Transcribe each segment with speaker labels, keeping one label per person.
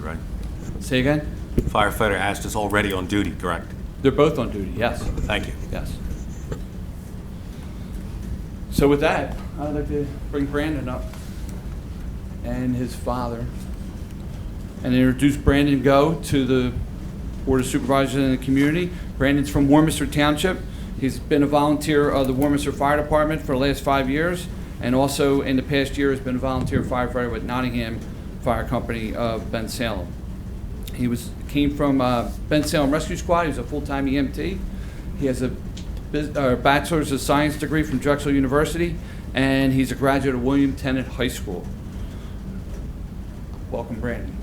Speaker 1: right?
Speaker 2: Say again?
Speaker 1: Firefighter Ast is already on duty, correct?
Speaker 2: They're both on duty, yes,
Speaker 1: Thank you.
Speaker 2: yes. So with that, I'd like to bring Brandon up and his father and introduce Brandon Go to the Board of Supervisors in the community. Brandon's from Warmminster Township. He's been a volunteer of the Warmminster Fire Department for the last five years, and also in the past year has been a volunteer firefighter with Nottingham Fire Company of Ben Salem. He was, came from uh, Ben Salem Rescue Squad, he was a full-time EMT. He has a bus- uh, Bachelor's of Science degree from Drexel University, and he's a graduate of William Tennant High School. Welcome, Brandon.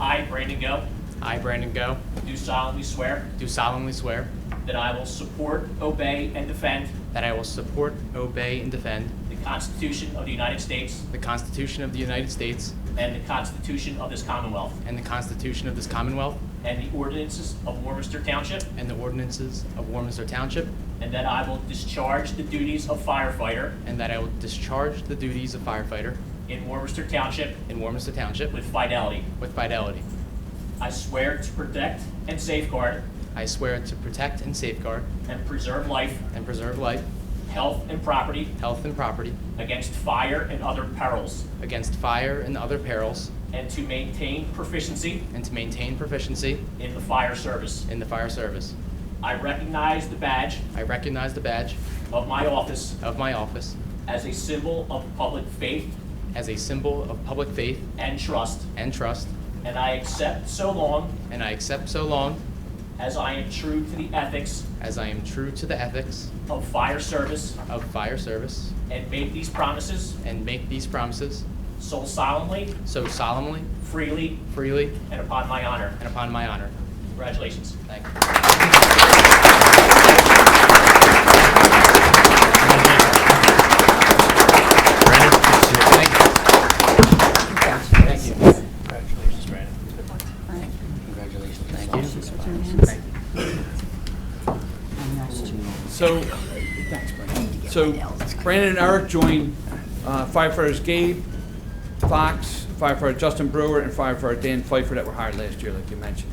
Speaker 3: I, Brandon Go,
Speaker 4: I, Brandon Go,
Speaker 3: do solemnly swear
Speaker 4: do solemnly swear
Speaker 3: that I will support, obey, and defend
Speaker 4: that I will support, obey, and defend
Speaker 3: the Constitution of the United States
Speaker 4: the Constitution of the United States
Speaker 3: and the Constitution of this Commonwealth
Speaker 4: and the Constitution of this Commonwealth
Speaker 3: and the ordinances of Warmminster Township,
Speaker 4: and the ordinances of Warminster Township,
Speaker 3: and that I will discharge the duties of firefighter
Speaker 4: and that I will discharge the duties of firefighter
Speaker 3: in Warmminster Township
Speaker 4: in Warminster Township
Speaker 3: with fidelity.
Speaker 4: with fidelity.
Speaker 3: I swear to protect and safeguard
Speaker 4: I swear to protect and safeguard
Speaker 3: and preserve life,
Speaker 4: and preserve life,
Speaker 3: health, and property
Speaker 4: health, and property
Speaker 3: against fire and other perils,
Speaker 4: against fire and other perils,
Speaker 3: and to maintain proficiency
Speaker 4: and to maintain proficiency
Speaker 3: in the fire service.
Speaker 4: in the fire service.
Speaker 3: I recognize the badge
Speaker 4: I recognize the badge
Speaker 3: of my office
Speaker 4: of my office
Speaker 3: as a symbol of public faith
Speaker 4: as a symbol of public faith
Speaker 3: and trust,
Speaker 4: and trust,
Speaker 3: and I accept so long
Speaker 4: and I accept so long
Speaker 3: as I am true to the ethics
Speaker 4: As I am true to the ethics
Speaker 3: of fire service
Speaker 4: of fire service
Speaker 3: and make these promises
Speaker 4: and make these promises
Speaker 3: so solemnly,
Speaker 4: so solemnly,
Speaker 3: freely,
Speaker 4: freely,
Speaker 3: and upon my honor.
Speaker 4: and upon my honor.
Speaker 3: Congratulations.
Speaker 4: Thank you. Thank you.
Speaker 5: Congratulations.
Speaker 3: Congratulations, Brandon.
Speaker 5: Congratulations. Thank you.
Speaker 2: So, so Brandon and Eric joined uh, firefighters Gabe Fox, firefighter Justin Brewer, and firefighter Dan Pfeiffer that were hired last year, like you mentioned.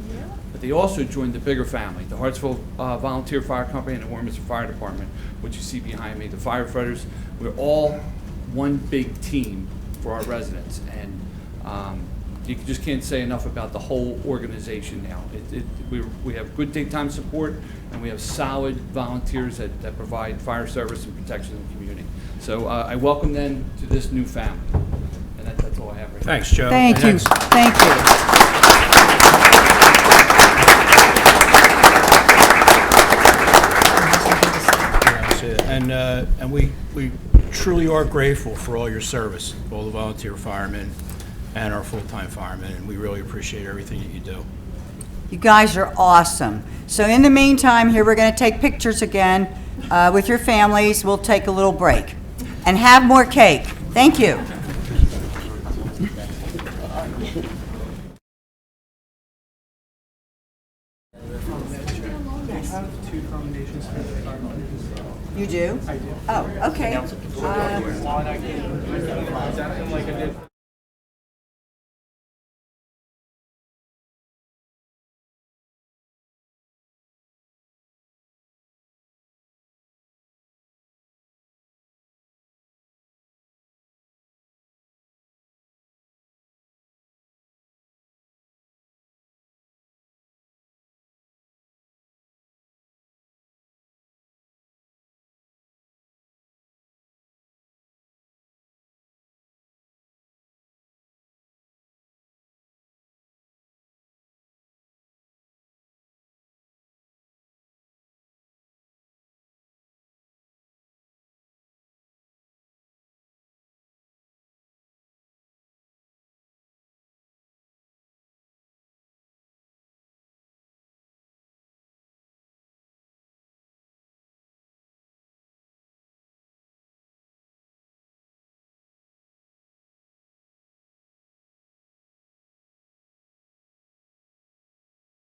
Speaker 2: But they also joined the bigger family, the Hartsville uh, Volunteer Fire Company and the Warminster Fire Department, which you see behind me, the firefighters. We're all one big team for our residents, and um, you just can't say enough about the whole organization now. It, it, we, we have good daytime support, and we have solid volunteers that, that provide fire service and protection in the community. So uh, I welcome them to this new family, and that, that's all I have right now.
Speaker 6: Thanks, Joe.
Speaker 7: Thank you,
Speaker 6: Next.
Speaker 7: thank you.
Speaker 6: Yeah, that's it. And, uh, and we, we truly are grateful for all your service, all the volunteer firemen and our full-time firemen, and we really appreciate everything that you do.
Speaker 7: You guys are awesome. So in the meantime, here, we're going to take pictures again uh, with your families. We'll take a little break. And have more cake. Thank you. Uh, You do? I do. Oh, okay.